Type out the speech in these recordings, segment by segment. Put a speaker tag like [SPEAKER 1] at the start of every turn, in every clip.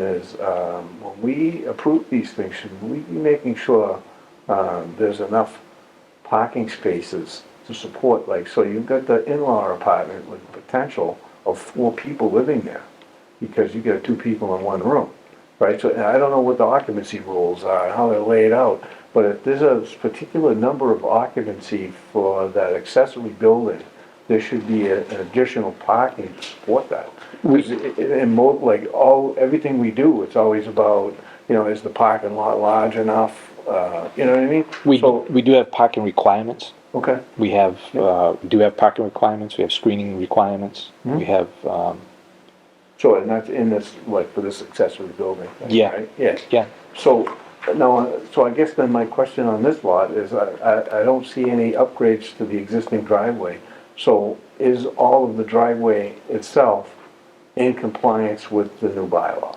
[SPEAKER 1] is, um, when we approve these things, should we be making sure, um, there's enough parking spaces to support, like, so you've got the in-law apartment with potential of four people living there, because you got two people in one room, right? So, and I don't know what the occupancy rules are, how they're laid out, but if there's a particular number of occupancy for that accessory building, there should be a- an additional parking to support that. 'Cause it- it- And more, like, all, everything we do, it's always about, you know, is the parking lot large enough, uh, you know what I mean?
[SPEAKER 2] We,
[SPEAKER 1] So-
[SPEAKER 2] we do have parking requirements.
[SPEAKER 1] Okay,
[SPEAKER 2] We have, uh, we do have parking requirements, we have screening requirements,
[SPEAKER 1] Hmm.
[SPEAKER 2] we have, um,
[SPEAKER 1] so, and that's in this, like, for this accessory building? thing,
[SPEAKER 2] Yeah.
[SPEAKER 1] right? Yeah.
[SPEAKER 2] yeah.
[SPEAKER 1] So, no, so I guess then my question on this lot is, I, I, I don't see any upgrades to the existing driveway. So is all of the driveway itself in compliance with the new bylaw?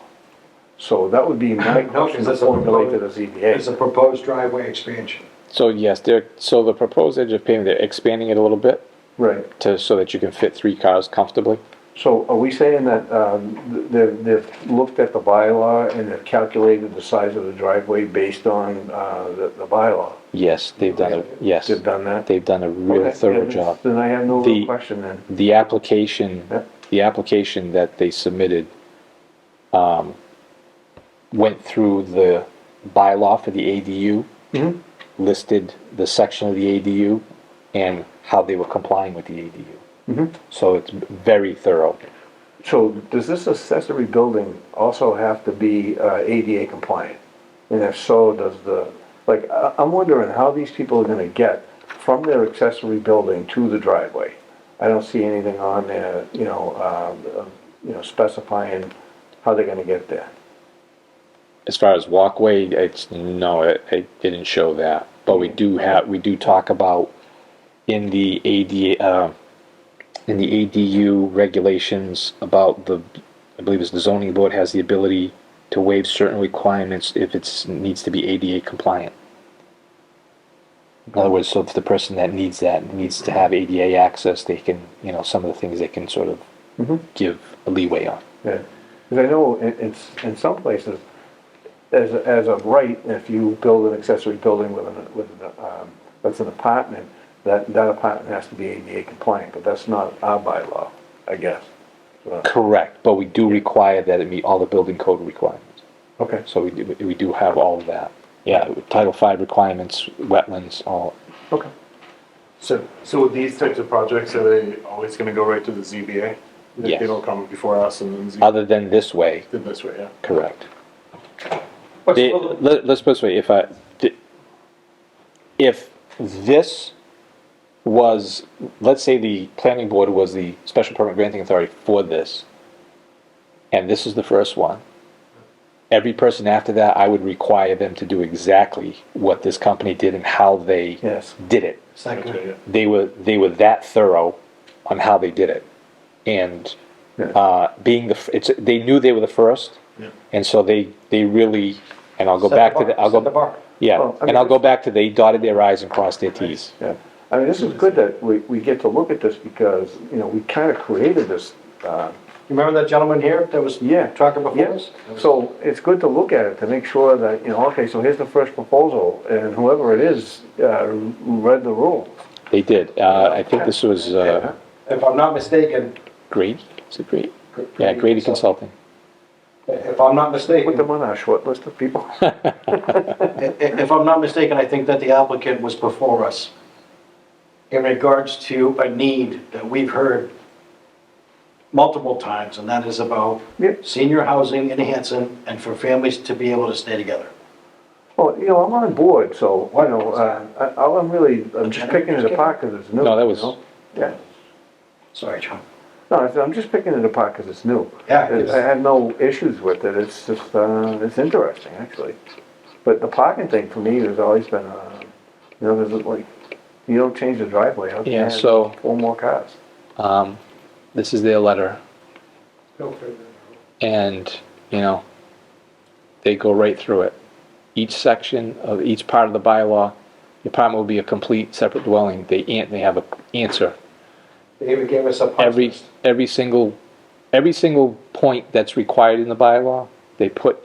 [SPEAKER 1] So that would be my
[SPEAKER 3] No,
[SPEAKER 1] question
[SPEAKER 3] because
[SPEAKER 1] to
[SPEAKER 3] it's a
[SPEAKER 1] formulate to the
[SPEAKER 3] proposed, it's a
[SPEAKER 1] ZBA.
[SPEAKER 3] proposed driveway expansion.
[SPEAKER 2] So yes, they're, so the proposed edge of pavement, they're expanding it a little bit
[SPEAKER 1] Right,
[SPEAKER 2] to, so that you can fit three cars comfortably.
[SPEAKER 1] so are we saying that, um, they've, they've looked at the bylaw and they've calculated the size of the driveway based on, uh, the, the bylaw?
[SPEAKER 2] Yes, they've done, a yes,
[SPEAKER 1] They've done that?
[SPEAKER 2] they've done a real
[SPEAKER 1] Okay,
[SPEAKER 2] thorough
[SPEAKER 1] then-
[SPEAKER 2] job.
[SPEAKER 1] Then I have no
[SPEAKER 2] The-
[SPEAKER 1] real question then.
[SPEAKER 2] The application,
[SPEAKER 1] Yep.
[SPEAKER 2] the application that they submitted, um, went through the bylaw for the ADU. Listed the section of the ADU and how they were complying with the ADU. So it's very thorough.
[SPEAKER 1] So does this accessory building also have to be uh, ADA compliant? And if so, does the, like, I- I'm wondering how these people are gonna get from their accessory building to the driveway? I don't see anything on there, you know, um, uh, you know, specifying how they're gonna get there.
[SPEAKER 2] As far as walkway, it's, no, it, it didn't show that, but we do have, we do talk about in the AD, uh, in the ADU regulations about the, I believe it's the zoning board has the ability to waive certain requirements if it's, needs to be ADA compliant. In other words, so if the person that needs that needs to have ADA access, they can, you know, some of the things they can sort of give a leeway on.
[SPEAKER 1] Yeah, because I know in, in, s- in some places, as, a- as of right, if you build an accessory building with an, with an, um, that's an apartment, that, that apartment has to be ADA compliant, but that's not our bylaw, I guess. So,
[SPEAKER 2] Correct, but we do require that it meet all the building code requirements.
[SPEAKER 1] Okay,
[SPEAKER 2] So we do, we do have all of that. Yeah, Title V requirements, wetlands, all.
[SPEAKER 1] okay.
[SPEAKER 4] So, so with these types of projects, are they always gonna go right to the ZBA? They-
[SPEAKER 2] Yes. Uh,
[SPEAKER 4] They don't come before us and then ZBA
[SPEAKER 2] Other than this way,
[SPEAKER 4] did this way, yeah.
[SPEAKER 2] correct.
[SPEAKER 4] But
[SPEAKER 2] They-
[SPEAKER 4] still,
[SPEAKER 2] let, us put it this way, if I, th- if this was, let's say the planning board was the special permit granting authority for this, and this is the first one, every person after that, I would require them to do exactly what this company did and how they
[SPEAKER 1] Yes.
[SPEAKER 2] did it.
[SPEAKER 3] It's not
[SPEAKER 4] okay, yeah.
[SPEAKER 3] good.
[SPEAKER 2] they were they were that thorough on how they did it, and
[SPEAKER 1] Yeah.
[SPEAKER 2] uh, being the f- it's they knew they were the first,
[SPEAKER 4] Yeah.
[SPEAKER 2] and so they they really and I'll go
[SPEAKER 3] Set
[SPEAKER 2] back
[SPEAKER 3] the
[SPEAKER 2] to the
[SPEAKER 3] bar,
[SPEAKER 2] I'll go
[SPEAKER 3] set the bar.
[SPEAKER 2] yeah,
[SPEAKER 1] Well, I
[SPEAKER 2] and
[SPEAKER 1] mean,
[SPEAKER 2] I'll go
[SPEAKER 1] this-
[SPEAKER 2] back to they dotted their i's and crossed their t's.
[SPEAKER 1] Yeah, I mean, this is good that we, we get to look at this because, you know, we kind of created this, uh,
[SPEAKER 3] You remember that gentleman here that was
[SPEAKER 1] Yeah.
[SPEAKER 3] talking before
[SPEAKER 1] Yes,
[SPEAKER 3] us?
[SPEAKER 1] so it's good to look at it to make sure that, you know, okay, so here's the first proposal, and whoever it is, uh, read the rules.
[SPEAKER 2] They did. Uh, I think this was uh,
[SPEAKER 3] If I'm not mistaken,
[SPEAKER 2] Grady. Is it Grady?
[SPEAKER 3] Gr-
[SPEAKER 2] Yeah,
[SPEAKER 3] Grady
[SPEAKER 2] Grady
[SPEAKER 3] Consulting.
[SPEAKER 2] Consulting.
[SPEAKER 3] if I'm not
[SPEAKER 1] Put
[SPEAKER 3] mistaken,
[SPEAKER 1] them on our short list of people.
[SPEAKER 3] i- i- if I'm not mistaken, I think that the applicant was before us in regards to a need that we've heard multiple times, and that is about
[SPEAKER 1] Yeah.
[SPEAKER 3] senior housing in Hanson and for families to be able to stay together.
[SPEAKER 1] Well, you know, I'm on board, so, you know, uh, I- all I'm really, I'm just picking it apart because it's new.
[SPEAKER 2] No, that
[SPEAKER 1] you
[SPEAKER 2] was-
[SPEAKER 1] know? Yeah,
[SPEAKER 3] Sorry, John.
[SPEAKER 1] no, I said I'm just picking it apart because it's new.
[SPEAKER 3] Yeah, it is.
[SPEAKER 1] I have no issues with it, it's just, uh, it's interesting, actually. But the parking thing for me has always been, uh, you know, there's like, you don't change the driveway, how can you
[SPEAKER 2] Yeah,
[SPEAKER 1] have
[SPEAKER 2] so-
[SPEAKER 1] Four more cars.
[SPEAKER 2] Um, this is their letter, and you know they go right through it. Each section of each part of the bylaw, the apartment will be a complete separate dwelling. They an- they have a answer
[SPEAKER 3] They even gave us a punch
[SPEAKER 2] every
[SPEAKER 3] list.
[SPEAKER 2] every single every single point that's required in the bylaw. they put